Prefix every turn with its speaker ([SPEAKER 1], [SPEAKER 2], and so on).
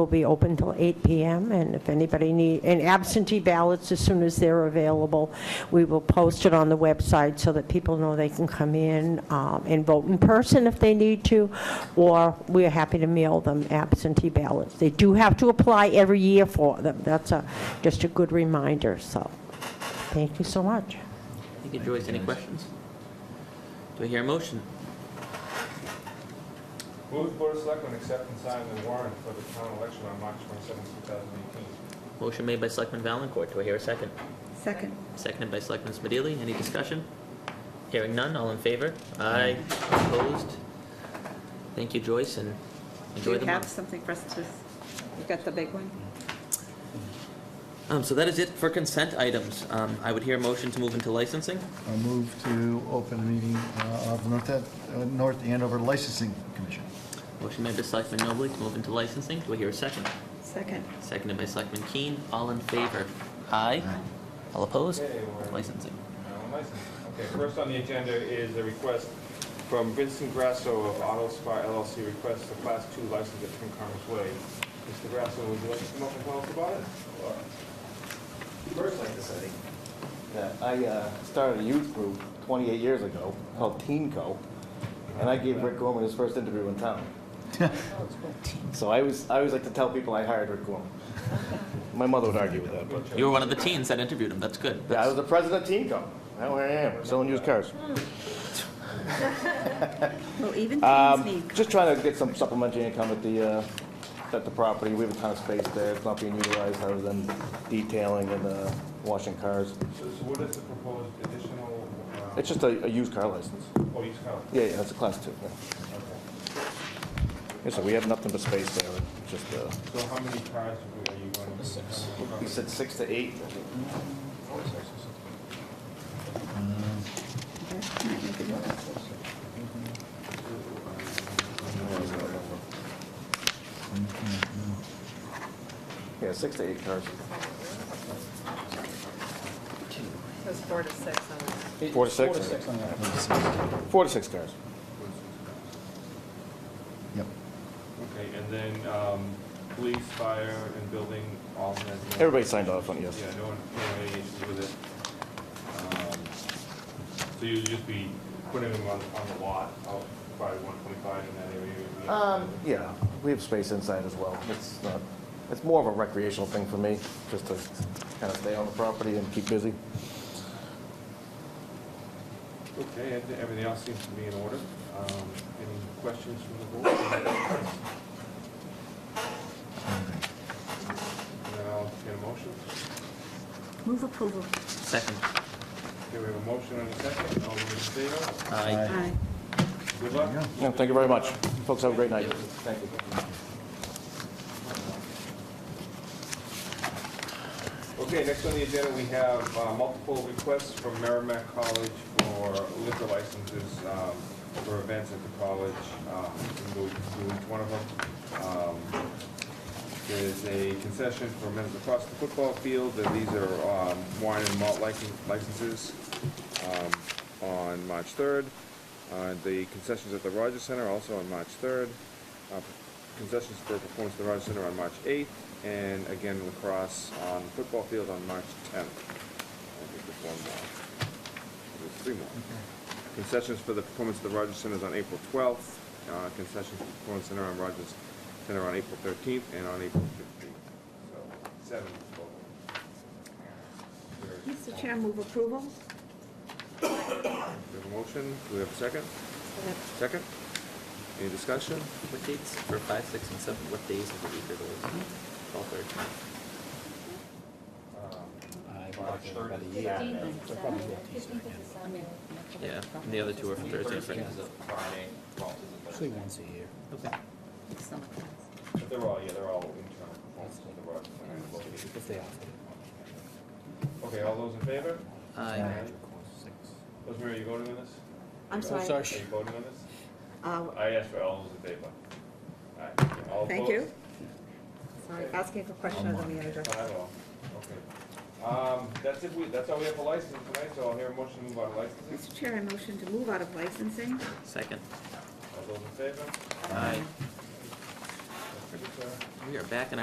[SPEAKER 1] Will be open till 8 PM, and if anybody need, and absentee ballots, as soon as they're available, we will post it on the website so that people know they can come in um, and vote in person if they need to, or we're happy to mail them absentee ballots. They do have to apply every year for them. That's a, just a good reminder, so, thank you so much.
[SPEAKER 2] Thank you, Joyce. Any questions? Do I hear a motion?
[SPEAKER 3] Move the Board of Selectmen accept and sign the warrant for the town election on March 27, 2018.
[SPEAKER 2] Motion made by Selectman Valencourt. Do I hear a second?
[SPEAKER 4] Second.
[SPEAKER 2] Seconded by Selectman Smedili. Any discussion? Hearing none. All in favor? Aye. Opposed? Thank you, Joyce, and
[SPEAKER 4] Do
[SPEAKER 2] enjoy
[SPEAKER 4] you
[SPEAKER 2] the
[SPEAKER 4] have
[SPEAKER 2] month.
[SPEAKER 4] something for us to, you got the big one?
[SPEAKER 2] Um, so that is it for consent items. Um, I would hear a motion to move into licensing.
[SPEAKER 5] I move to open a meeting uh, of North uh, North Andover Licensing Commission.
[SPEAKER 2] Motion made by Selectman Nobley to move into licensing. Do I hear a second?
[SPEAKER 4] Second.
[SPEAKER 2] Seconded by Selectman Keen. All in favor? Aye. All opposed?
[SPEAKER 3] Okay, we're-
[SPEAKER 2] Licensing.
[SPEAKER 3] Now, on license. Okay, first on the agenda is a request from Vincent Grasso of Auto Spa LLC, requests a Class 2 license at Twin Commerce Way. Mr. Grasso, would you like to come up and tell us about it?
[SPEAKER 6] First, I'd like to say that I uh, started a youth group 28 years ago called Teen Co. And I gave Rick Gorman his first interview in town. So I was, I always like to tell people I hired Rick Gorman. My mother would argue with that, but.
[SPEAKER 2] You were one of the teens that interviewed him. That's good.
[SPEAKER 6] Yeah, I
[SPEAKER 2] That's-
[SPEAKER 6] was the president of Teen Co. Now here I am, selling used cars.
[SPEAKER 4] Well, even
[SPEAKER 6] Um,
[SPEAKER 4] things need.
[SPEAKER 6] Just trying to get some supplementary income at the, uh, at the property. We have a ton of space there. It's not being utilized other than detailing and uh, washing cars.
[SPEAKER 3] So so what is the proposed additional, uh,
[SPEAKER 6] It's just a a used car license.
[SPEAKER 3] oh, you just kind of-
[SPEAKER 6] Yeah, yeah, that's a class two, yeah.
[SPEAKER 3] okay.
[SPEAKER 6] Yeah, so we have nothing but space there, and just, uh,
[SPEAKER 3] So how many cars are you going to? Six.
[SPEAKER 6] you said six to eight? I think. Yeah, six to eight cars.
[SPEAKER 4] Those four to six on that.
[SPEAKER 6] Four to six? Four to six cars.
[SPEAKER 5] Yep.
[SPEAKER 3] Okay, and then um, police, fire, and building, all that.
[SPEAKER 6] Everybody signed off on it, yes.
[SPEAKER 3] Yeah, no one, no one had any issues with it. Um, So you'll just be putting them on, on the lot, out by one twenty-five in that area? you know?
[SPEAKER 6] Um, yeah, we have space inside as well. It's not, it's more of a recreational thing for me, just to kind of stay on the property and keep busy.
[SPEAKER 3] Okay, I think everything else seems to be in order. Um, Any questions from the board? And then I'll get a motion.
[SPEAKER 4] Move approval.
[SPEAKER 2] Second.
[SPEAKER 3] Okay, we have a motion and a second, all those in favor?
[SPEAKER 2] Aye.
[SPEAKER 4] Aye.
[SPEAKER 3] Good luck.
[SPEAKER 5] Yeah.
[SPEAKER 6] Yeah, thank you very much. Folks, have a great night. Thank you.
[SPEAKER 3] Okay, next on the agenda, we have uh, multiple requests from Merrimack College for liquor licenses um, for events at the college. Um, We'll go through each one of them. Um, There's a concession for men's across the football field, and these are um, wine and malt lic- licenses um, on March 3rd. Uh, The concessions at the Rogers Center also on March 3rd. Uh, Concessions for performance at the Rogers Center on March 8th, and again lacrosse on the football field on March 10th. I think there's one more. There's three more. Concessions for the performance at the Rogers Center is on April 12th, uh, concessions for the performance center on Rogers Center on April 13th, and on April 15th. So, seven total. There's-
[SPEAKER 4] Mr. Chair, move approval.
[SPEAKER 3] we have a motion, do we have a second? Second? Any discussion?
[SPEAKER 2] What dates for five, six, and seven? What days of the week are those? All third.
[SPEAKER 3] Um, March 3rd.
[SPEAKER 2] Yeah, and the other two are for Thursday and Friday.
[SPEAKER 7] Actually, once a year.
[SPEAKER 2] Okay.
[SPEAKER 3] They're all, yeah, they're all internal performances of the Rogers Center.
[SPEAKER 7] If they offered it.
[SPEAKER 3] Okay, all those in favor?
[SPEAKER 2] Aye.
[SPEAKER 3] Rosemary, are you voting on this?
[SPEAKER 2] Oh,
[SPEAKER 4] I'm sorry.
[SPEAKER 3] Are you voting on this?
[SPEAKER 4] Uh,
[SPEAKER 3] I asked for all those in favor. All right, all
[SPEAKER 4] Thank you.
[SPEAKER 3] opposed?
[SPEAKER 4] Sorry, asking a question of the manager.
[SPEAKER 3] Five all, okay. Um, that's it, we, that's all we have for licensing tonight, so I'll hear a motion to move out of licensing.
[SPEAKER 4] Mr. Chair, I motion to move out of licensing.
[SPEAKER 2] Second.
[SPEAKER 3] All those in favor?
[SPEAKER 2] Aye.
[SPEAKER 3] That's pretty sir.
[SPEAKER 2] We are back in